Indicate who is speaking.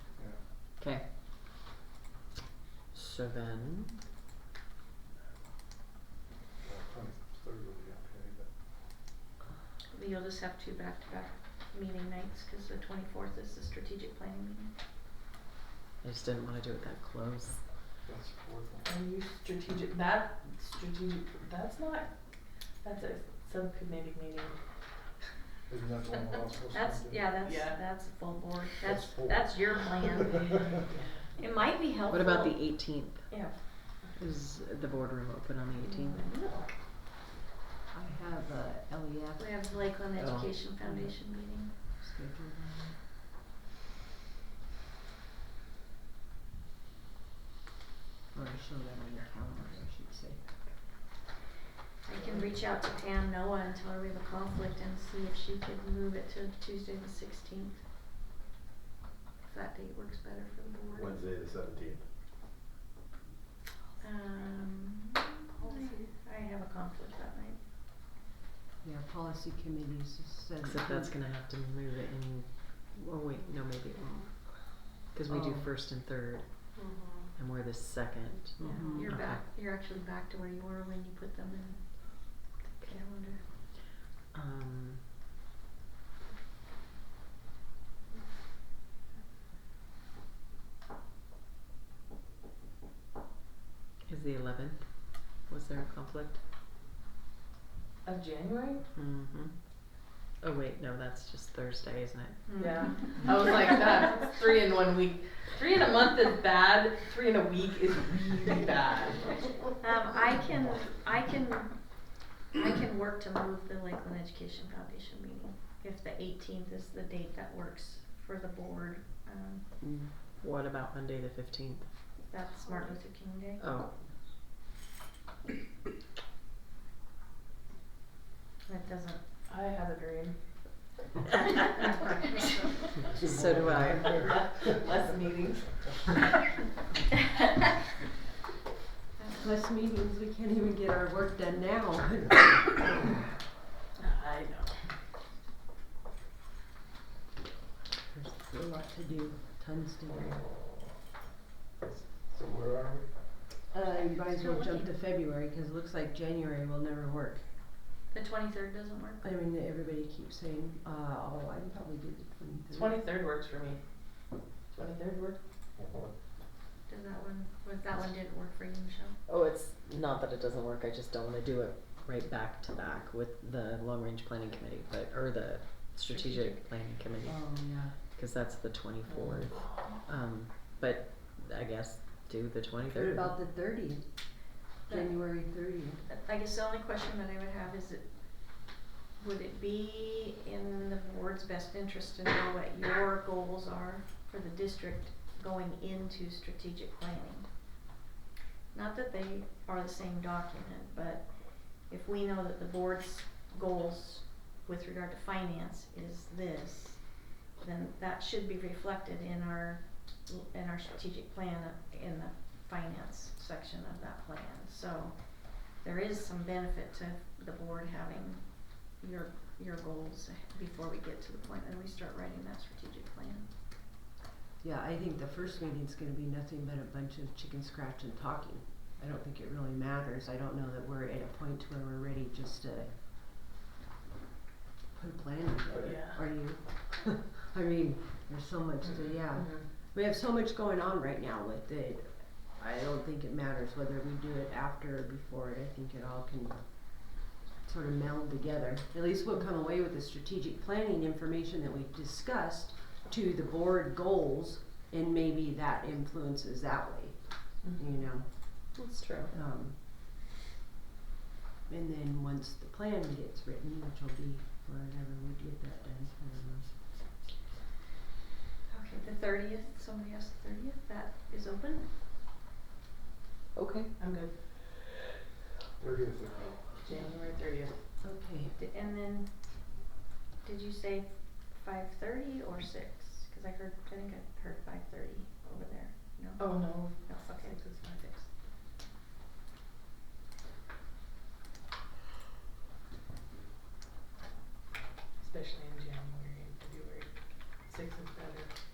Speaker 1: So then,
Speaker 2: Twenty-third will be okay, but
Speaker 3: You'll just have two back-to-back meeting nights, cause the twenty-fourth is the strategic planning meeting.
Speaker 1: I just didn't want to do it that close.
Speaker 2: that's the fourth one.
Speaker 4: Are you strategic, that, strategic, that's not, that's a subcommittee meeting.
Speaker 2: Isn't that the one we're all supposed to do?
Speaker 3: That's, yeah, that's,
Speaker 4: Yeah.
Speaker 3: that's a full board,
Speaker 2: That's
Speaker 3: that's,
Speaker 2: full.
Speaker 3: that's your plan. It might be
Speaker 5: Oh.
Speaker 3: helpful.
Speaker 1: What about the 18th?
Speaker 3: Yeah.
Speaker 1: Is the boardroom open on the 18th?
Speaker 5: I have a E LEF
Speaker 3: We have Lakeland
Speaker 1: Oh.
Speaker 3: Education Foundation meeting.
Speaker 5: scheduled on it. Or show that on your calendar, I should say.
Speaker 3: I can reach out to Pam Noah and tell her we have a conflict and see if she could move it to Tuesday the sixteenth. If that date works better for the board.
Speaker 6: Wednesday the seventeenth.
Speaker 3: Um, I I have a conflict that night.
Speaker 5: Yeah, policy committees said.
Speaker 1: Except that's going to have to move it in. Oh, wait, no, maybe it won't. Because we do
Speaker 5: Oh.
Speaker 1: first and third,
Speaker 4: Mm-hmm.
Speaker 1: and we're the second.
Speaker 5: Mhm.
Speaker 3: You're
Speaker 1: Okay.
Speaker 3: back, you're actually back to where you were when you put them in the calendar.
Speaker 1: Um, is the 11th? Was there a conflict?
Speaker 4: Of January?
Speaker 1: Mm-hmm. Oh wait, no, that's just Thursday, isn't it?
Speaker 4: Yeah. I was like, that's three in one week. Three in a month is bad, three in a week is really bad.
Speaker 3: Um, I can, I can, I can work to move the Lakeland Education Foundation meeting if the eighteenth is the date that works for the board. Um,
Speaker 1: What about Monday the fifteenth?
Speaker 3: that's Martin Luther King Day.
Speaker 1: Oh,
Speaker 3: That doesn't,
Speaker 4: I have a dream.
Speaker 1: So do I.
Speaker 4: Less meetings.
Speaker 5: Less meetings, we can't even get our work done now.
Speaker 4: I know.
Speaker 5: There's a lot to do, tons to do.
Speaker 2: So where are we?
Speaker 5: Uh, you might as
Speaker 3: Still
Speaker 5: well jump to
Speaker 3: looking.
Speaker 5: February, cause it looks like January will never work.
Speaker 3: the twenty-third doesn't work.
Speaker 5: I mean, everybody keeps saying, uh, oh, I can probably do the twenty-third.
Speaker 4: Twenty-third works for me. Twenty-third work?
Speaker 3: Does that one, was that one didn't work for you, Michelle?
Speaker 1: oh, it's not that it doesn't work. I just don't want to do it right back to back with the long range planning committee, but or the strategic,
Speaker 3: Strategic.
Speaker 1: planning committee
Speaker 5: Oh, yeah.
Speaker 1: because that's the twenty fourth. Um, but I guess do the twenty
Speaker 5: What
Speaker 1: third.
Speaker 5: about the thirtieth? January thirtieth?
Speaker 3: I guess the only question that I would have is it, would it be in the board's best interest to know what your goals are for the district going into strategic planning? Not that they are the same document, but if we know that the board's goals with regard to finance is this, then that should be reflected in our, in our strategic plan, in the finance section of that plan, so there is some benefit to the board having your, your goals before we get to the point that we start writing that strategic plan.
Speaker 5: Yeah, I think the first meeting's gonna be nothing but a bunch of chicken scratch and talking. I don't think it really matters. I don't know that we're at a point where we're ready just to put a plan together.
Speaker 4: Yeah.
Speaker 5: Are you? I mean, there's so much to, yeah.
Speaker 4: Mhm.
Speaker 5: We have so much going on right now with it. I don't think it matters whether we do it after or before it. I think it all can sort of meld together. At least we'll come away with the strategic planning information that we've discussed to the board goals and maybe that influences that way,
Speaker 4: Mm-hmm.
Speaker 5: you know.
Speaker 1: That's true.
Speaker 5: Um, and then once the plan gets written, which will be whenever we get that done, I don't know.
Speaker 3: Okay, the thirtieth, somebody asked the thirtieth, that is open?
Speaker 1: Okay.
Speaker 4: I'm good.
Speaker 2: Thirtieth of April.
Speaker 4: January thirtieth.
Speaker 5: Okay.
Speaker 3: D- And then, did you say five thirty or six? Cause I heard, I think I heard Oh.
Speaker 4: Oh,